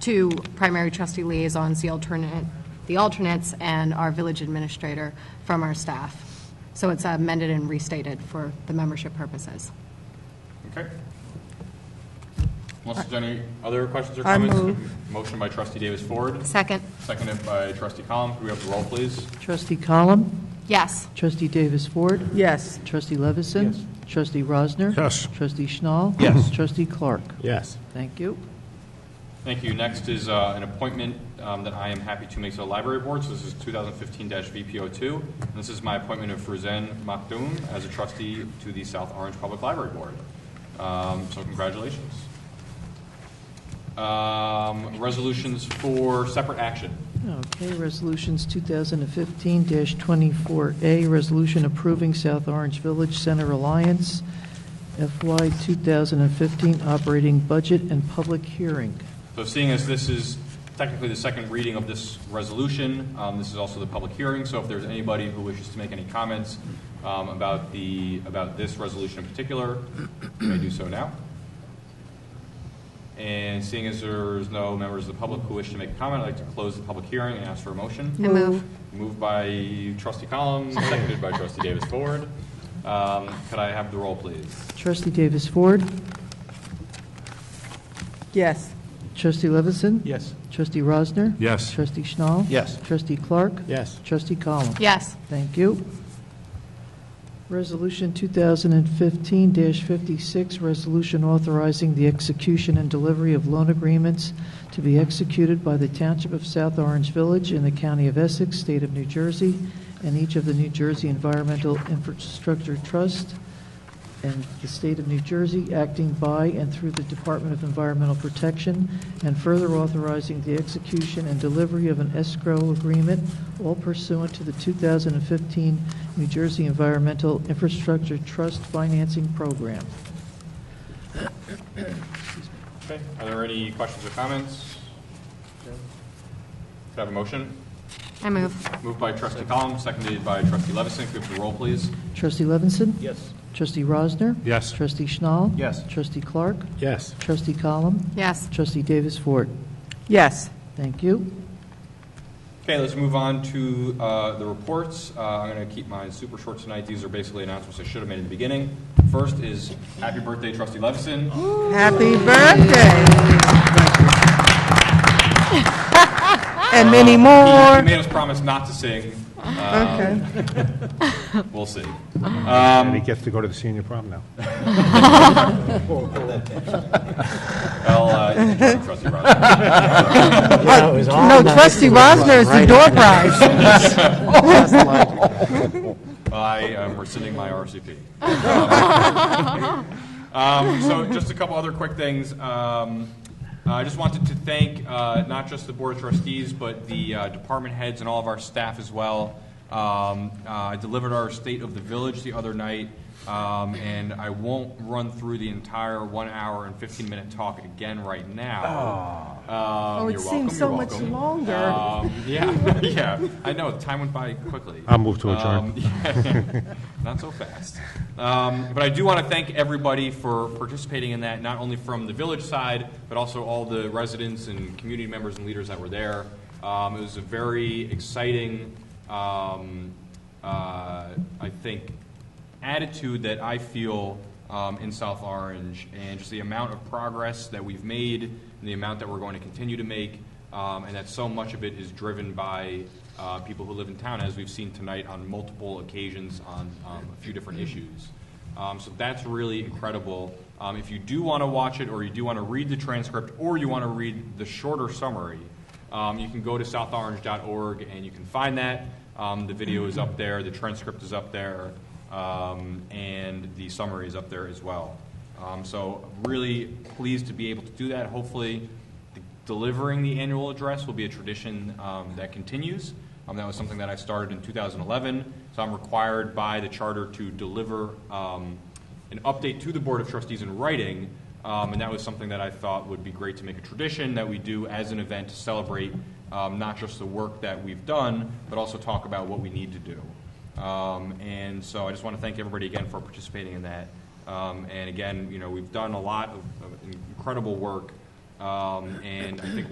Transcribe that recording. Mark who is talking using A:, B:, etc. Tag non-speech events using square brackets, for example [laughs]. A: two primary trustee liaisons, the alternate, the alternates, and our village administrator from our staff. So it's amended and restated for the membership purposes.
B: Okay. Unless there's any other questions or
C: I
B: comments? Motion by trustee Davis Ford,
A: Second?
B: seconded by trustee Column. Could we have the roll, please?
D: Trustee Column?
A: Yes.
D: Trustee Davis Ford?
C: Yes.
D: Trustee Levison? Yes. Trustee Rosner?
E: Yes.
D: Trustee Schnall?
E: Yes.
D: Trustee Clark?
E: Yes.
D: Thank you.
B: Thank you. Next is uh, an appointment um, that I am happy to make to the library board. So this is 2015-VPO2. And This is my appointment of Fruzen Makdoum as a trustee to the South Orange Public Library Board. Um, So congratulations. Um, Resolutions for separate action.
D: Okay, resolutions 2015-24A, resolution approving South Orange Village Center Alliance FY 2015 operating budget and public hearing.
B: So seeing as this is technically the second reading of this resolution, um, this is also the public hearing, so if there's anybody who wishes to make any comments um, about the, about this resolution in particular, you may do so now. And seeing as there's no members of the public who wish to make a comment, I'd like to close the public hearing and ask for a
A: I
B: motion.
A: move.
B: Moved by trustee Collins, seconded by trustee Davis Ford. Um, Could I have the roll, please?
D: Trustee Davis Ford?
C: Yes.
D: Trustee Levison?
E: Yes.
D: Trustee Rosner?
E: Yes.
D: Trustee Schnall?
E: Yes.
D: Trustee Clark?
E: Yes.
D: Trustee Column?
A: Yes.
D: Thank you. Resolution 2015-56, resolution authorizing the execution and delivery of loan agreements to be executed by the Township of South Orange Village in the County of Essex, State of New Jersey, and each of the New Jersey Environmental Infrastructure Trust and the State of New Jersey, acting by and through the Department of Environmental Protection, and further authorizing the execution and delivery of an escrow agreement, all pursuant to the 2015 New Jersey Environmental Infrastructure Trust Financing Program.
B: Okay, are there any questions or comments? Could I have a motion?
A: I move.
B: Moved by trustee Column, seconded by trustee Levison. Could we have the roll, please?
D: Trustee Levinson?
E: Yes.
D: Trustee Rosner?
E: Yes.
D: Trustee Schnall?
E: Yes.
D: Trustee Clark?
E: Yes.
D: Trustee Column?
A: Yes.
D: Trustee Davis Ford?
C: Yes.
D: Thank you.
B: Okay, let's move on to uh, the reports. Uh, I'm going to keep mine super short tonight. These are basically announcements I should have made in the beginning. First is happy birthday, trustee Levison.
C: Happy birthday. And many
B: He
C: more.
B: made us promise not to sing. Um,
C: Okay.
B: [laughs] We'll see.
E: And he gets to go to the senior prom now.
B: Well, uh, [laughs] you can join trustee Rogers.
C: No, trustee Rosner is the door prize.
B: I am rescinding my RCP. Um, so just a couple other quick things. Um, I just wanted to thank uh, not just the Board of Trustees, but the uh, department heads and all of our staff as well. Um, uh, I delivered our State of the Village the other night, um, and I won't run through the entire one hour and 15 minute talk again right now. Um,
C: Oh, it
B: you're
C: seems
B: welcome,
C: so
B: you're
C: much
B: welcome.
C: longer.
B: Um, yeah, [laughs] yeah. I know, time went by quickly.
E: I'll move to adjourn.
B: [laughs] Um, not so fast. Um, But I do want to thank everybody for participating in that, not only from the village side, but also all the residents and community members and leaders that were there. Um, It was a very exciting, um, uh, I think, attitude that I feel um, in South Orange, and just the amount of progress that we've made, and the amount that we're going to continue to make, um, and that so much of it is driven by uh, people who live in town, as we've seen tonight on multiple occasions on um, a few different issues. Um, So that's really incredible. Um, If you do want to watch it, or you do want to read the transcript, or you want to read the shorter summary, um, you can go to southorange.org and you can find that. Um, The video is up there, the transcript is up there, um, and the summary is up there as well. Um, So really pleased to be able to do that. Hopefully, the- delivering the annual address will be a tradition um, that continues. Um, That was something that I started in 2011, so I'm required by the charter to deliver um, an update to the Board of Trustees in writing, um, and that was something that I thought would be great to make a tradition that we do as an event to celebrate um, not just the work that we've done, but also talk about what we need to do. Um, And so I just want to thank everybody again for participating in that. Um, And again, you know, we've done a lot of of incredible work, um, and I think